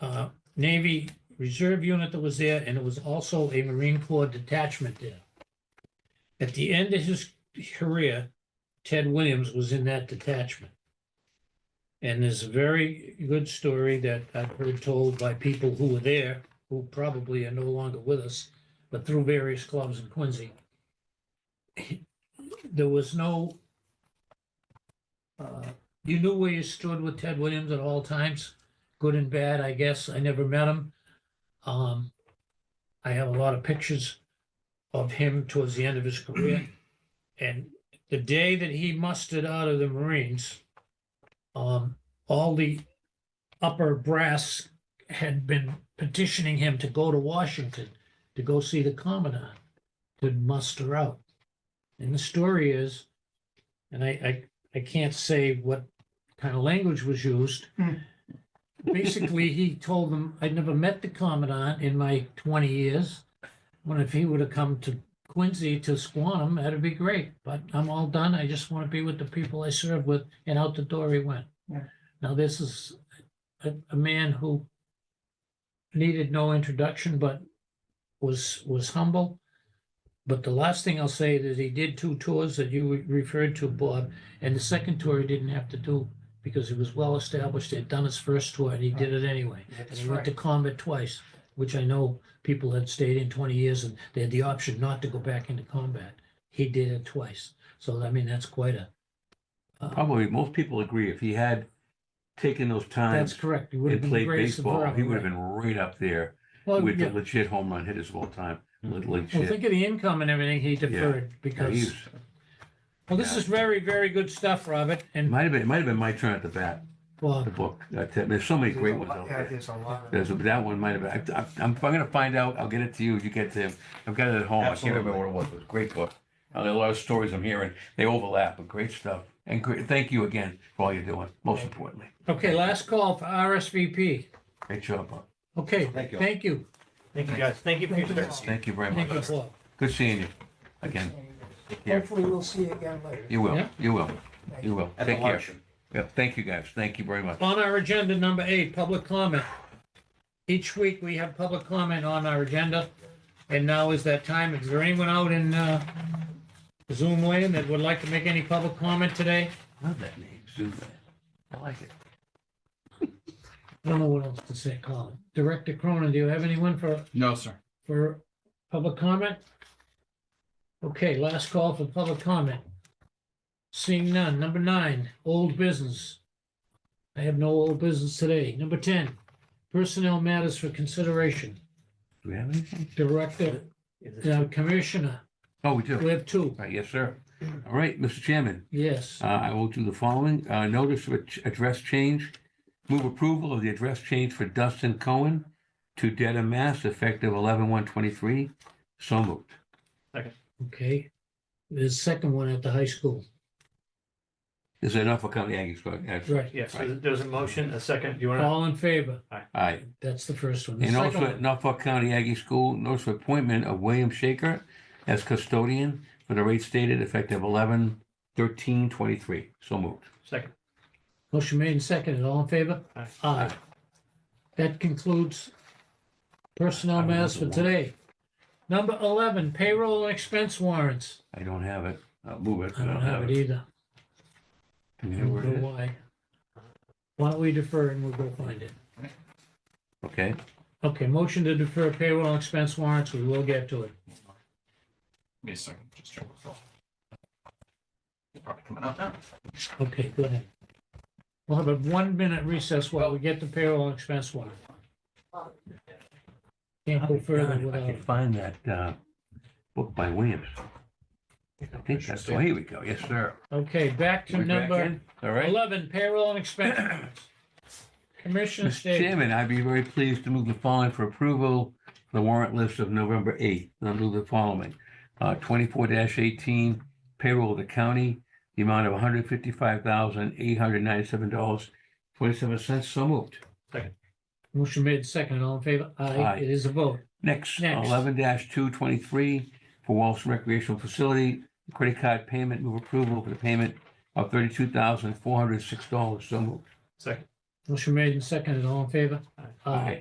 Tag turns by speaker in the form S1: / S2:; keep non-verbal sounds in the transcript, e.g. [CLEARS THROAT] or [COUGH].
S1: uh, Navy Reserve unit that was there, and it was also a Marine Corps detachment there. At the end of his career, Ted Williams was in that detachment. And there's a very good story that I've heard told by people who were there, who probably are no longer with us, but through various clubs in Quincy. [CLEARS THROAT] There was no, uh, you knew where you stood with Ted Williams at all times, good and bad, I guess. I never met him. Um, I have a lot of pictures of him towards the end of his career. And the day that he mustered out of the Marines, um, all the upper brass had been petitioning him to go to Washington to go see the commandant to muster out. And the story is, and I, I, I can't say what kind of language was used.
S2: Hmm.
S1: Basically, he told them, I'd never met the commandant in my twenty years. When if he would have come to Quincy to Squanum, that'd be great, but I'm all done. I just want to be with the people I serve with, and out the door he went.
S2: Yeah.
S1: Now, this is a, a man who needed no introduction, but was, was humble. But the last thing I'll say is he did two tours that you referred to, Bob, and the second tour he didn't have to do because he was well-established. They'd done his first tour, and he did it anyway. And
S2: That's
S1: he went
S2: right.
S1: to combat twice, which I know people had stayed in twenty years and they had the option not to go back into combat. He did it twice. So I mean, that's quite a. uh,
S3: Probably most people agree if he had taken those
S1: That's
S3: times
S1: correct. He would have
S3: and
S1: been the
S3: played
S1: greatest of
S3: baseball,
S1: all,
S3: he would have
S1: right.
S3: been right up there
S1: Well,
S3: with the
S1: yeah. Mm-hmm.
S3: legit home run hitters of all time. Le-
S1: Well,
S3: Legit.
S1: think of the income and everything he deferred
S3: Yeah, he
S1: because,
S3: was-
S1: well, this is very, very good stuff, Robert.
S3: It
S1: And
S3: might have been, it might have been my turn at the bat,
S1: well,
S3: the book. Uh, Ted, There's so many
S2: There's a
S3: great ones
S2: lot-
S3: out
S2: yeah,
S3: there.
S2: there's a lot.
S3: There's, that one might have been, I- I- I'm, I'm gonna find out, I'll get it to you, you get to him. I've got it at home, I can't remember what it was, it was a great book. Uh, There are a lot of stories I'm hearing, they overlap, but great stuff. And great, thank you again for all you're doing, most importantly.
S1: okay, last call for RSVP.
S3: Great job, Bob.
S1: Okay,
S3: Thank you.
S1: thank you.
S4: Thank you, guys. Thank you for your service.
S3: Thank you very
S1: Thank you,
S3: much.
S1: Bob.
S3: Good seeing you again. Take care.
S2: Hopefully we'll see you again later.
S3: You will,
S1: Yeah.
S3: you will, you will.
S4: At the
S3: Take care.
S4: luncheon.
S3: Yeah, thank you guys. Thank you very much.
S1: On our agenda, number eight, public comment. Each week, we have public comment on our agenda, and now is that time. Is there anyone out in uh, Zoom land that would like to make any public comment today?
S3: Love that name, Zubat. I like it.
S1: I don't know what else to say, Colin. Director Cronin, do you have anyone for,
S5: No, sir.
S1: for public comment? Okay, last call for public comment. Seeing none. Number nine, old business. I have no old business today. Number 10, personnel matters for consideration.
S3: Do we have anything?
S1: Director Now, Commissioner,
S3: Oh, we do.
S1: we
S3: All
S1: have two,
S3: right, yes, sir. All right, Mr. Chairman,
S1: yes.
S3: uh, I will do the following. Uh, Notice of ad- address change. Move approval of the address change for Dustin Cohen to Dedham, Mass. effective 11/1/23. So moved.
S1: Okay. The second one at the high school.
S3: Is that enough for County Aggies? but, uh,
S1: Right.
S4: Yes, so there's a motion, a second. Do you want
S1: All in favor?
S3: All right.
S1: That's the first one. The
S3: And
S1: second
S3: also at
S1: one-
S3: Norfolk County Aggie School, notice of appointment of William Shaker as custodian for the rate stated effective eleven thirteen twenty-three. So moved.
S4: to? Second.
S1: Motion made and seconded, all in favor?
S4: Aye.
S1: Aye. That concludes personnel
S3: I don't have
S1: matters
S3: the
S1: for
S3: warrant.
S1: today. Number 11, payroll and expense warrants.
S3: I don't have it. I'll move it.
S1: I don't have it either.
S3: Do
S1: I
S3: you know
S1: don't
S3: where it
S1: know
S3: is?
S1: why. Why don't we defer and we'll go find it?
S3: Okay,
S1: Okay, motion to defer payroll and expense warrants, we will get to it.
S5: Give me a second, just check. the phone. It's Probably coming out now.
S1: Okay, go ahead. We'll have a one-minute recess while we get the payroll and expense warrant. Can't go further
S3: God, if I
S1: without
S3: can
S1: it.
S3: find that, uh, book by Williams. I think that's, oh, here we go. Yes, sir.
S1: Okay, back to
S3: We're back
S1: number
S3: in. All right.
S1: eleven, payroll and expense
S3: [CLEARS THROAT]
S1: warrants. Commissioner
S3: Mr.
S1: State,
S3: Chairman, I'd be very pleased to move the following for approval, the warrant list of November 8th. I'll move the following. Uh, 24-18 payroll of the county, the amount of $155,897.27. So moved.
S1: motion made second, all in favor? Aye,
S3: Aye.
S1: it is a vote.
S3: Next,
S1: Next.
S3: 11-223 for Walsh Recreational Facility, credit card payment, move approval for the payment of $32,406. So moved.
S4: Second.
S1: Motion made and seconded, all in favor?
S3: Aye.